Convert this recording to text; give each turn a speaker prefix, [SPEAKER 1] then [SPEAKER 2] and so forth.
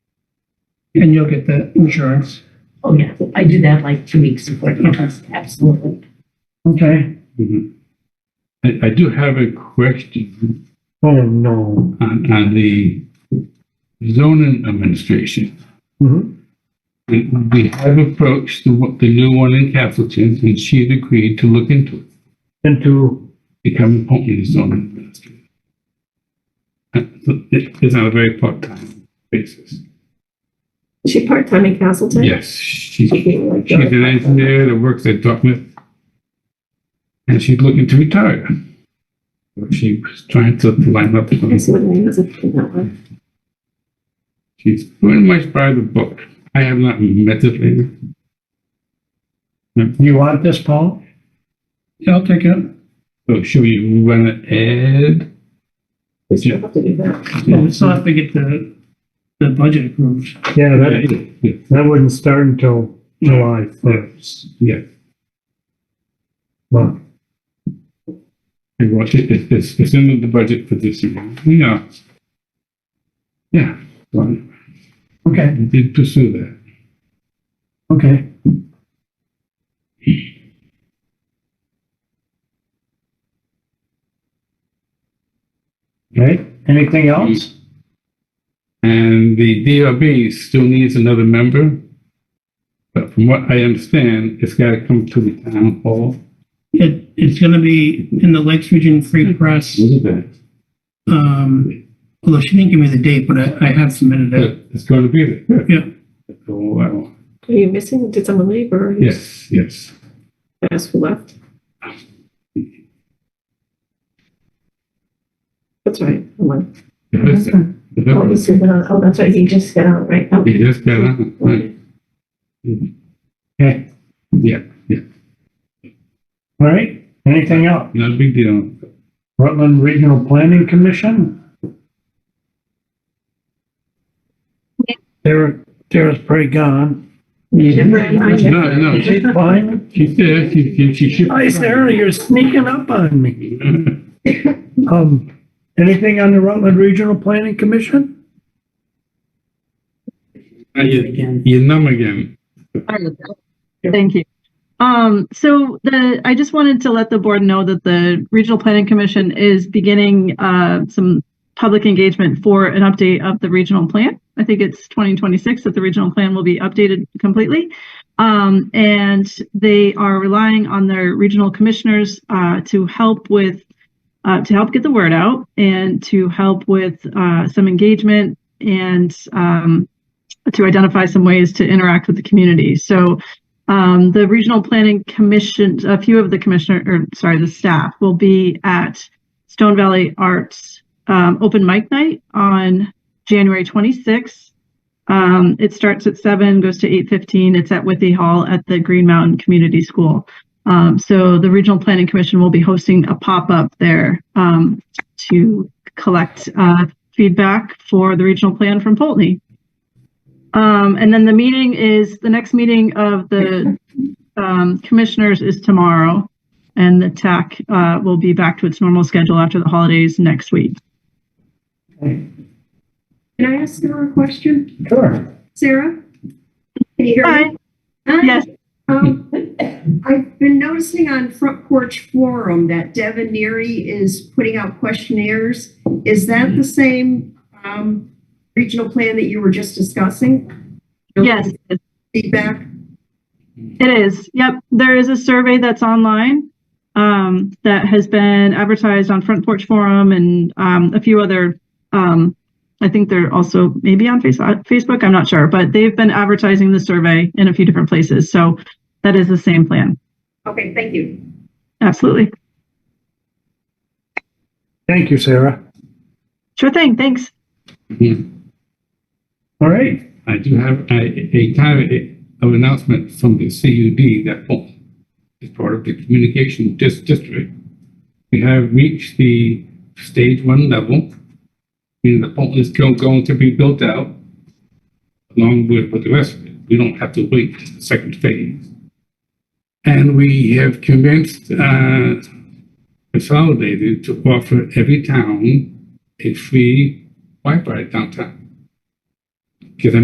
[SPEAKER 1] and you'll get the insurance.
[SPEAKER 2] Oh, yeah, I do that like two weeks before campus, absolutely.
[SPEAKER 1] Okay,
[SPEAKER 3] Mhm. I, I do have a question
[SPEAKER 4] Oh, no.
[SPEAKER 3] on, on the zoning administration.
[SPEAKER 4] Mhm.
[SPEAKER 3] We, we have approached the, one- the new one in Castleton and she's agreed to look into it,
[SPEAKER 4] And to,
[SPEAKER 3] become appointed zoning administrator. Uh, so it- It's on a very part-time basis.
[SPEAKER 5] Is she part-time in Castleton?
[SPEAKER 3] Yes, she's,
[SPEAKER 5] She
[SPEAKER 3] she's
[SPEAKER 5] can't, like, go
[SPEAKER 3] an
[SPEAKER 5] part-time.
[SPEAKER 3] engineer that works at Dartmouth. And she's looking to retire. She was trying to line up some.
[SPEAKER 5] I see what the name is in that one.
[SPEAKER 3] She's pretty much by the book. I have not met this lady.
[SPEAKER 4] you want this, Paul?
[SPEAKER 1] yeah, I'll take it.
[SPEAKER 3] So should we run an ad?
[SPEAKER 5] We still
[SPEAKER 3] Yeah.
[SPEAKER 5] have to do that.
[SPEAKER 1] Well, we still have to get the, the budget approved.
[SPEAKER 4] Yeah, that, that wouldn't start until July first.
[SPEAKER 3] Yeah,
[SPEAKER 4] But
[SPEAKER 3] it was- it- it- it's, it's in the budget for this year. Yeah. Yeah, well, I
[SPEAKER 1] Okay,
[SPEAKER 3] did pursue that.
[SPEAKER 1] okay.
[SPEAKER 4] Okay, anything else?
[SPEAKER 3] And the DRB still needs another member. But from what I understand, it's gotta come to the town hall.
[SPEAKER 1] It, it's gonna be in the Lakes Region Free Press,
[SPEAKER 3] What is that?
[SPEAKER 1] um, although she didn't give me the date, but I, I have submitted it.
[SPEAKER 3] It's gonna be there.
[SPEAKER 1] Yeah.
[SPEAKER 3] That's all I want.
[SPEAKER 5] Are you missing, did someone leave or?
[SPEAKER 3] Yes, yes.
[SPEAKER 5] That's who left? That's right, hold on.
[SPEAKER 3] Listen,
[SPEAKER 5] Oh, he's just got on, oh, that's right, he just got on, right, okay.
[SPEAKER 3] He just got on, right.
[SPEAKER 4] Okay,
[SPEAKER 3] yeah, yeah,
[SPEAKER 4] all right, anything else?
[SPEAKER 3] no big deal.
[SPEAKER 4] Rutland Regional Planning Commission? Tara, Tara's pretty gone.
[SPEAKER 3] No, no,
[SPEAKER 4] Is she
[SPEAKER 3] she-
[SPEAKER 4] fine?
[SPEAKER 3] she's there, she, she, she should.
[SPEAKER 4] Hi, Sarah, you're sneaking up on me. Um, anything on the Rutland Regional Planning Commission?
[SPEAKER 3] Now you- You're numb again.
[SPEAKER 6] Thank you. Um, so the, I just wanted to let the board know that the Regional Planning Commission is beginning, uh, some public engagement for an update of the regional plan. I think it's twenty twenty-six that the regional plan will be updated completely. Um, and they are relying on their regional commissioners, uh, to help with, uh, to help get the word out and to help with, uh, some engagement and, um, to identify some ways to interact with the community. So, um, the Regional Planning Commission, a few of the commissioner, or sorry, the staff will be at Stone Valley Arts, um, open mic night on January 26th. Um, it starts at seven, goes to 8:15. It's at Withy Hall at the Green Mountain Community School. Um, so the Regional Planning Commission will be hosting a pop-up there, um, to collect, uh, feedback for the regional plan from Polteny. Um, and then the meeting is, the next meeting of the, um, commissioners is tomorrow. And the TAC, uh, will be back to its normal schedule after the holidays next week.
[SPEAKER 7] Can I ask Sarah a question?
[SPEAKER 4] Sure.
[SPEAKER 7] Sarah? Can you hear me?
[SPEAKER 6] Hi. Uh, Yes.
[SPEAKER 7] Um, I've been noticing on Front Porch Forum that Devin Neary is putting out questionnaires. Is that the same, um, regional plan that you were just discussing?
[SPEAKER 6] Yes,
[SPEAKER 7] Feedback?
[SPEAKER 6] it is. Yep. There is a survey that's online, um, that has been advertised on Front Porch Forum and, um, a few other, um, I think they're also maybe on Face- uh, Facebook. I'm not sure, but they've been advertising the survey in a few different places. So that is the same plan.
[SPEAKER 7] Okay, thank you.
[SPEAKER 6] Absolutely.
[SPEAKER 4] Thank you, Sarah.
[SPEAKER 6] Sure thing. Thanks.
[SPEAKER 4] All right,
[SPEAKER 3] I do have a, a kind of of announcement from the CUD that oh, is part of the communication dis- district. We have reached the stage one level. And the pole is go- going to be built out along with, with the rest of it. We don't have to wait for the second phase. And we have commenced, uh, consolidated to offer every town a free Wi-Fi downtown.